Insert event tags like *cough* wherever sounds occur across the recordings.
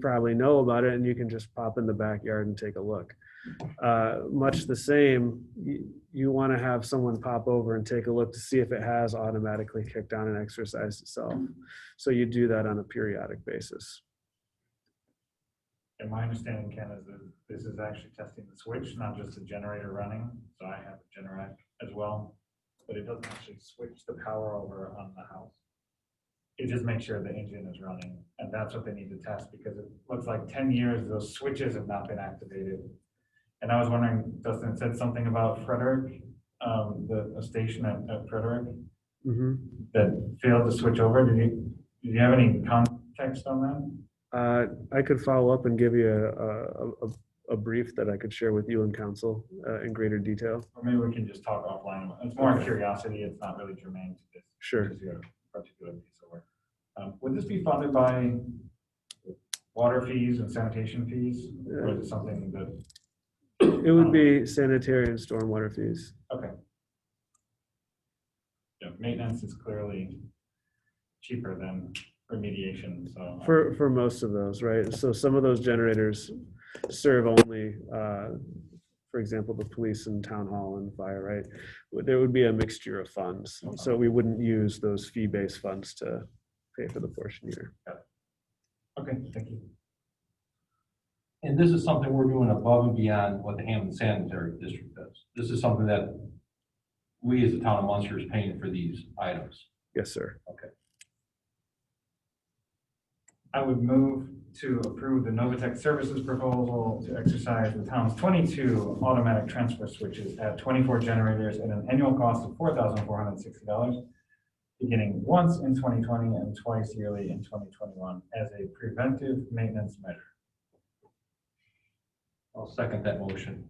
probably know about it and you can just pop in the backyard and take a look. Uh, Much the same, you, you want to have someone pop over and take a look to see if it has automatically kicked on and exercised itself. So you do that on a periodic basis. And my understanding, Ken, is that this is actually testing the switch, not just the generator running. So I have a Generac as well, but it doesn't actually switch the power over on the house. It just makes sure the engine is running, and that's what they need to test, because it looks like ten years, those switches have not been activated. And I was wondering, Dustin said something about Frederick, um, the, the station at, at Frederick Mhm. that failed to switch over. Did you, did you have any context on that? Uh, I could follow up and give you a- a, a, a brief that I could share with you and council uh, in greater detail. Or maybe we can just talk offline. It's more curiosity. It's not really germane to this Sure. particular particular piece of work. Um, Would this be funded by water fees and sanitation fees? Or is it something that, It would be sanitary and stormwater fees. okay. Yeah, maintenance is clearly cheaper than remediation, so. um, For, for most of those, right? So some of those generators serve only, uh, for example, the police and town hall and fire, right? Would- There would be a mixture of funds, so we wouldn't use those fee-based funds to pay for the portion here. Okay, thank you. And this is something we're doing above and beyond what the Hammond Sanitary District does. This is something that we as the town of Munster is paying for these items. Yes, sir. I would move to approve the Novatech Services proposal to exercise the town's twenty-two automatic transfer switches at twenty-four generators at an annual cost of four thousand four hundred and sixty dollars, beginning once in twenty twenty and twice yearly in twenty twenty-one as a preventive maintenance measure. I'll second that motion.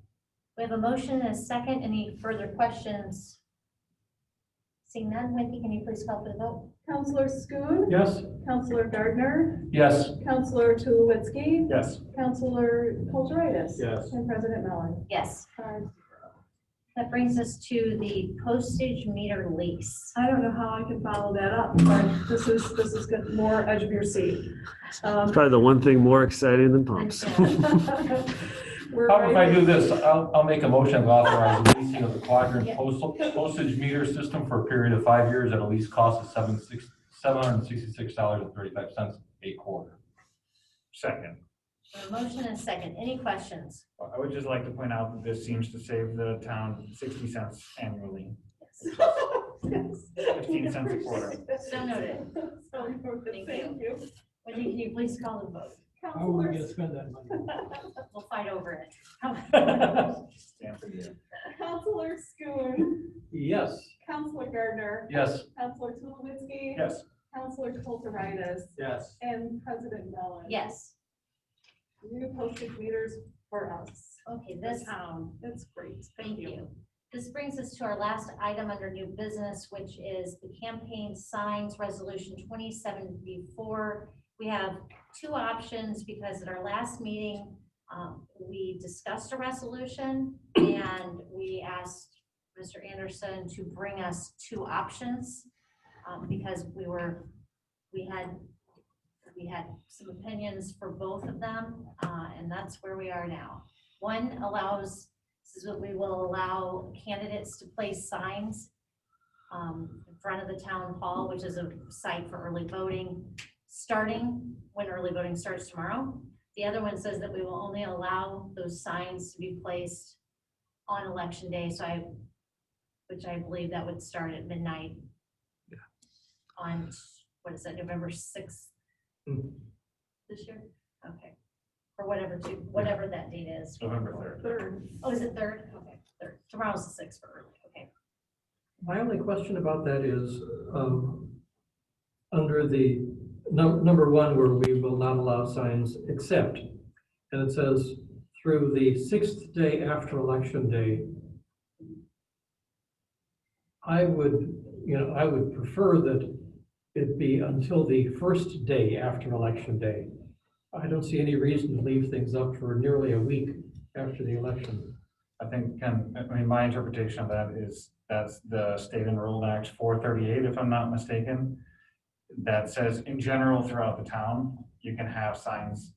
We have a motion and a second. Any further questions? Seeing none, Wendy, can you please call for the vote? Counselor Schoen, Yes? Counselor Gardner, Yes. Counselor Tulowitzki, Yes. Counselor Kulturitis. Yes. And President Mellon. Yes, Five zero. that brings us to the postage meter lease. I don't know how I can follow that up, but this is, this is good- more edge of your seat. Um, *laughs* It's probably the one thing more exciting than pumps. uh, *laughs* We're How about if I ready. do this? I'll, I'll make a motion to authorize the leasing of the quadrant postal, postage meter system for a period of five years at a lease cost of seven six, seven hundred and sixty-six dollars and thirty-five cents a quarter. Second, A motion and a second. Any questions? I would just like to point out that this seems to save the town sixty cents annually, *laughs* Yes. fifteen cents a quarter. So noted. So noted. Thank you. Thank you. Wendy, can you please call the vote? How Oh, are we Counselor, gonna spend that money? We'll fight over it. Stand for you. *laughs* Counselor Schoen, Yes. Counselor Gardner, Yes. Counselor Tulowitzki, Yes, Counselor Kulturitis, Yes. and President Mellon. Yes, New postage meters for us. okay, this, um, That's great. Thank you. This brings us to our last item under new business, which is the campaign signs resolution twenty-seven before. We have two options because at our last meeting, um, we discussed a resolution and we asked Mr. Anderson to bring us two options um, because we were, we had, we had some opinions for both of them, uh, and that's where we are now. One allows this is what we will allow candidates to place signs um, in front of the town hall, which is a site for early voting, starting when early voting starts tomorrow. The other one says that we will only allow those signs to be placed on election day, so I, which I believe that would start at midnight on, what is that, November sixth Mm. this year? Okay, or whatever, to- whatever that date is. November third. Third, Oh, is it third? Okay, third. Tomorrow's the sixth for early, okay. My only question about that is, um, under the, num- number one, where we will not allow signs except, and it says through the sixth day after election day. I would, you know, I would prefer that it be until the first day after election day. I don't see any reason to leave things up for nearly a week after the election. I think, Ken, I mean, my interpretation of that is, that's the state enrolled act four thirty-eight, if I'm not mistaken. That says in general throughout the town, you can have signs